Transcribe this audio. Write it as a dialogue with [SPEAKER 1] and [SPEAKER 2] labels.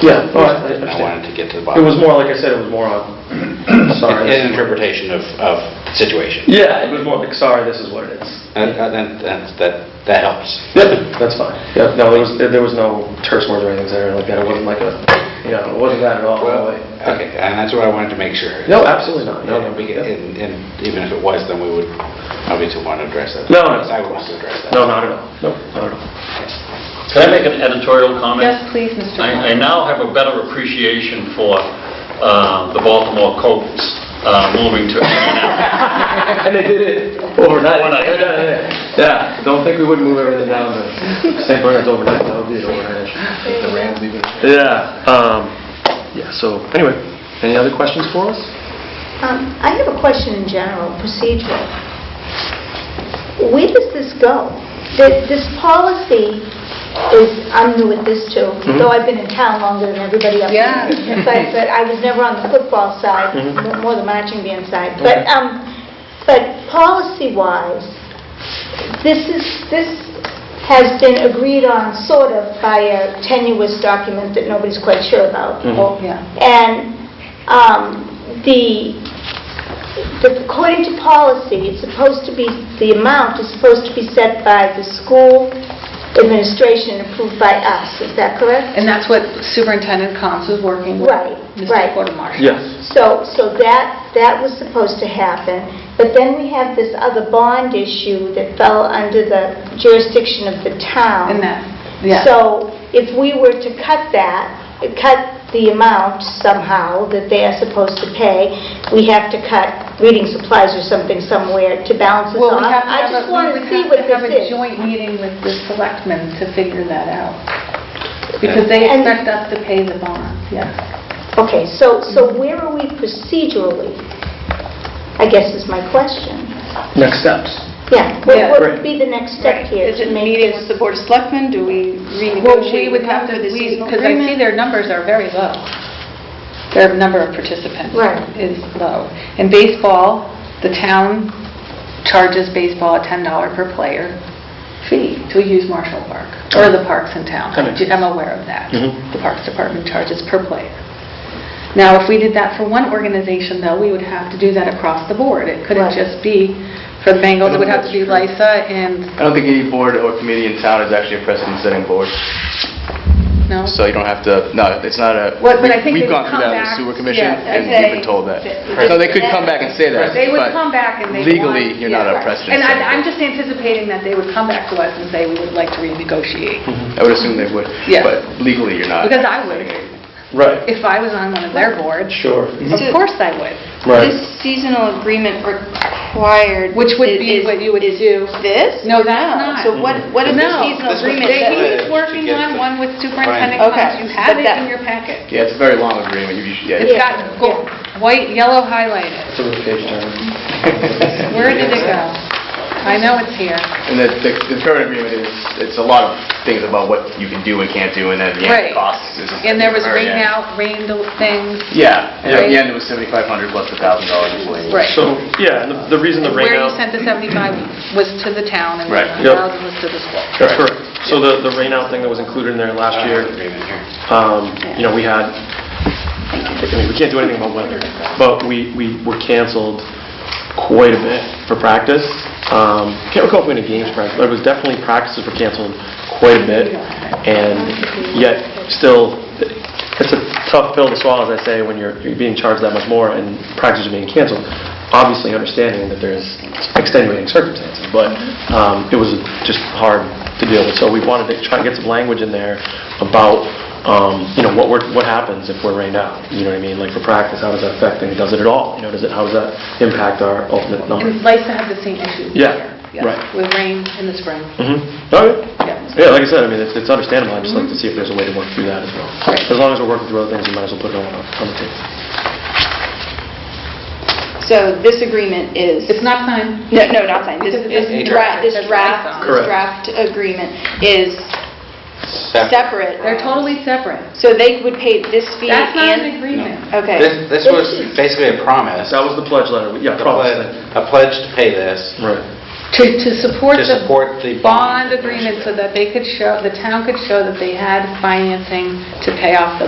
[SPEAKER 1] Yeah, oh,
[SPEAKER 2] I
[SPEAKER 1] I I understand.
[SPEAKER 2] wanted to get to the
[SPEAKER 1] It
[SPEAKER 2] bottom.
[SPEAKER 1] was more, like I said, it was more on, sorry.
[SPEAKER 2] An interpretation of, of situation.
[SPEAKER 1] Yeah, it was more like, sorry, this is what it is.
[SPEAKER 2] And, and, and that, that helps.
[SPEAKER 1] Yep, that's fine. Yep, no, there was, there was no terse words or anything there like that. It wasn't like a, you know, it wasn't that at all. no
[SPEAKER 2] Well,
[SPEAKER 1] way.
[SPEAKER 2] okay, and that's what I wanted to make sure.
[SPEAKER 1] No, absolutely not. No, no,
[SPEAKER 2] And we get-
[SPEAKER 1] yeah.
[SPEAKER 2] and, and even if it was, then we would obviously want to address that.
[SPEAKER 1] No, no.
[SPEAKER 2] I would want to address that.
[SPEAKER 1] No, not at all. No, not at all.
[SPEAKER 3] Can I make an editorial comment?
[SPEAKER 4] Yes, please, Mr.
[SPEAKER 3] I I
[SPEAKER 4] Wallner.
[SPEAKER 3] now have a better appreciation for uh, the Baltimore Colts uh, moving to Indianapolis.
[SPEAKER 1] And they did it overnight.
[SPEAKER 3] Overnight.
[SPEAKER 1] Yeah, don't think we would move everything down to St. Bernard's overnight. That would be an overnight issue. Yeah, um, yeah, so, anyway, any other questions for us?
[SPEAKER 5] Um, I have a question in general, procedural. Where does this go? Th- This policy is, I'm new at this too, though I've been in town longer than everybody else.
[SPEAKER 4] Yeah.
[SPEAKER 5] But, but I was never on the football side,
[SPEAKER 1] Mhm.
[SPEAKER 5] more the marching band side. But,
[SPEAKER 1] Okay.
[SPEAKER 5] um, but policy-wise, this is, this has been agreed on sort of by a tenuous document that nobody's quite sure about,
[SPEAKER 1] Mhm.
[SPEAKER 5] or
[SPEAKER 4] Yeah.
[SPEAKER 5] and um, the, the- according to policy, it's supposed to be, the amount is supposed to be set by the school administration and approved by us, is that correct?
[SPEAKER 4] And that's what Superintendent Cons was working with
[SPEAKER 5] Right,
[SPEAKER 4] Mr.
[SPEAKER 5] right.
[SPEAKER 4] Quartermaster.
[SPEAKER 1] Yes.
[SPEAKER 5] So, so that, that was supposed to happen, but then we have this other bond issue that fell under the jurisdiction of the town.
[SPEAKER 4] And that, yeah.
[SPEAKER 5] So if we were to cut that, cut the amount somehow that they are supposed to pay, we have to cut reading supplies or something somewhere to balance this
[SPEAKER 4] Well,
[SPEAKER 5] off.
[SPEAKER 4] we have to
[SPEAKER 5] I
[SPEAKER 4] have a-
[SPEAKER 5] just want to
[SPEAKER 4] we
[SPEAKER 5] see
[SPEAKER 4] have
[SPEAKER 5] what
[SPEAKER 4] to have a
[SPEAKER 5] this is.
[SPEAKER 4] joint meeting with the selectmen to figure that out. Because they
[SPEAKER 5] And-
[SPEAKER 4] expect us to pay the bonds, yes.
[SPEAKER 5] Okay, so, so where are we procedurally? I guess is my question.
[SPEAKER 1] Next steps.
[SPEAKER 5] Yeah, what
[SPEAKER 6] Yeah.
[SPEAKER 5] what would be the next step
[SPEAKER 6] Right.
[SPEAKER 5] here?
[SPEAKER 6] Is
[SPEAKER 5] to
[SPEAKER 6] it
[SPEAKER 5] make
[SPEAKER 6] meeting
[SPEAKER 5] this-
[SPEAKER 6] with the Board of Selectmen? Do we renegotiate?
[SPEAKER 4] Well, we would have to,
[SPEAKER 6] with them the seasonal
[SPEAKER 4] because I see
[SPEAKER 6] agreement?
[SPEAKER 4] their numbers are very low. Their number of participants
[SPEAKER 5] Right.
[SPEAKER 4] is low. In baseball, the town charges baseball a $10 per player fee to use Marshall Park, or the parks in town.
[SPEAKER 1] That makes
[SPEAKER 4] I'm aware of that.
[SPEAKER 1] Mhm.
[SPEAKER 4] The Parks Department charges per player. Now, if we did that for one organization, though, we would have to do that across the board. It couldn't
[SPEAKER 5] Right.
[SPEAKER 4] just be, for the Bengals, it would have to be LISA and,
[SPEAKER 7] I don't think any board or committee in town is actually a precedent-setting board,
[SPEAKER 4] no?
[SPEAKER 7] so you don't have to, no, it's not a,
[SPEAKER 4] What- but I think
[SPEAKER 7] we've
[SPEAKER 4] they would
[SPEAKER 7] gone through
[SPEAKER 4] come
[SPEAKER 7] that with the
[SPEAKER 4] back-
[SPEAKER 7] sewer commission,
[SPEAKER 4] yeah,
[SPEAKER 7] and
[SPEAKER 4] I'd
[SPEAKER 7] we've
[SPEAKER 4] say
[SPEAKER 7] been told that.
[SPEAKER 4] that-
[SPEAKER 7] So they could come back and say that,
[SPEAKER 4] They would
[SPEAKER 7] but
[SPEAKER 4] come back and they would want-
[SPEAKER 7] legally, you're not
[SPEAKER 4] Yeah,
[SPEAKER 7] a
[SPEAKER 4] right.
[SPEAKER 7] precedent.
[SPEAKER 4] And I- I'm
[SPEAKER 7] setter.
[SPEAKER 4] just anticipating that they would come back to us and say, we would like to renegotiate.
[SPEAKER 7] I would assume they would,
[SPEAKER 4] Yeah.
[SPEAKER 7] but legally, you're not.
[SPEAKER 4] Because I would,
[SPEAKER 1] Right.
[SPEAKER 4] if I was on one of their boards,
[SPEAKER 1] Sure.
[SPEAKER 4] of course I would.
[SPEAKER 1] Right.
[SPEAKER 6] This seasonal agreement required...
[SPEAKER 4] Which would
[SPEAKER 6] is-
[SPEAKER 4] be
[SPEAKER 6] is-
[SPEAKER 4] what you would
[SPEAKER 6] is
[SPEAKER 4] do.
[SPEAKER 6] This?
[SPEAKER 4] No, that's not.
[SPEAKER 6] So what, what is the
[SPEAKER 4] No.
[SPEAKER 6] seasonal
[SPEAKER 2] This was
[SPEAKER 6] agreement?
[SPEAKER 2] the-
[SPEAKER 6] that-
[SPEAKER 4] He's working on one with Superintendent
[SPEAKER 6] Okay,
[SPEAKER 4] Cox. You have
[SPEAKER 6] but
[SPEAKER 4] it
[SPEAKER 6] that-
[SPEAKER 4] in your packet.
[SPEAKER 7] Yeah, it's a very long agreement, you should, yeah.
[SPEAKER 4] It's got gold, white, yellow highlighted.
[SPEAKER 1] It's a really page turn.
[SPEAKER 4] Where did it go? I know it's here.
[SPEAKER 7] And the, the the current agreement is, it's a lot of things about what you can do and can't do, and then the
[SPEAKER 4] Right.
[SPEAKER 7] end costs. is-
[SPEAKER 4] And there was
[SPEAKER 7] Very
[SPEAKER 4] rain
[SPEAKER 7] end.
[SPEAKER 4] out, rain things.
[SPEAKER 7] Yeah, and at
[SPEAKER 4] Right.
[SPEAKER 7] the end, it was 7,500 plus the $1,000 miscellaneous.
[SPEAKER 4] Right.
[SPEAKER 1] So, yeah, and the- the reason the rain
[SPEAKER 4] Where you
[SPEAKER 1] out...
[SPEAKER 4] sent the 75 was to the town and the
[SPEAKER 7] Right.
[SPEAKER 4] 1,000 was to the school.
[SPEAKER 1] That's correct. So the, the rain out thing that was included in there last
[SPEAKER 2] Uh,
[SPEAKER 1] year,
[SPEAKER 2] agreement here.
[SPEAKER 1] um, you know, we had, I mean, we can't do anything about weather, but we, we were canceled quite a bit for practice. Um, Can't recall if we had any games practice, but it was definitely practices were canceled quite a bit. And yet, still, it's a tough pill to swallow, as I say, when you're, you're being charged that much more and practices are being canceled. Obviously, understanding that there's extenuating circumstances, but um, it was just hard to deal with. So we wanted to try to get some language in there about, um, you know, what we're, what happens if we're rained out? You know what I mean? Like for practice, how does that affect things? Does it at all? You know, does it, how does that impact our ultimate number?
[SPEAKER 4] And LISA had the same issue.
[SPEAKER 1] Yeah,
[SPEAKER 4] Yeah,
[SPEAKER 1] right.
[SPEAKER 4] With rain in the spring.
[SPEAKER 1] Mm-hmm. All right.
[SPEAKER 4] Yeah.
[SPEAKER 1] Yeah, like I said, I mean, it's it's understandable, I'd just like to see if there's a way to work through that as well. As long as we're working through other things, we might as well put it on on the table.
[SPEAKER 6] So this agreement is...
[SPEAKER 4] It's not signed.
[SPEAKER 6] No, no, not signed. This
[SPEAKER 4] Because it doesn't
[SPEAKER 6] this draft,
[SPEAKER 4] say
[SPEAKER 6] this draft,
[SPEAKER 4] draft.
[SPEAKER 6] this
[SPEAKER 1] Correct.
[SPEAKER 6] draft agreement is
[SPEAKER 2] Separate.
[SPEAKER 6] separate.
[SPEAKER 4] They're totally separate.
[SPEAKER 6] So they would pay this fee
[SPEAKER 4] That's not an
[SPEAKER 6] and...
[SPEAKER 4] agreement.
[SPEAKER 6] Okay.
[SPEAKER 2] This, this was basically a promise.
[SPEAKER 1] That was the pledge letter,
[SPEAKER 2] A
[SPEAKER 1] yeah, promise
[SPEAKER 2] pledge-
[SPEAKER 1] thing.
[SPEAKER 2] A pledge to pay this.
[SPEAKER 1] Right.
[SPEAKER 4] To, to support
[SPEAKER 2] To
[SPEAKER 4] the
[SPEAKER 2] support the bond.
[SPEAKER 4] bond agreement so that they could show, the town could show that they had financing to pay off the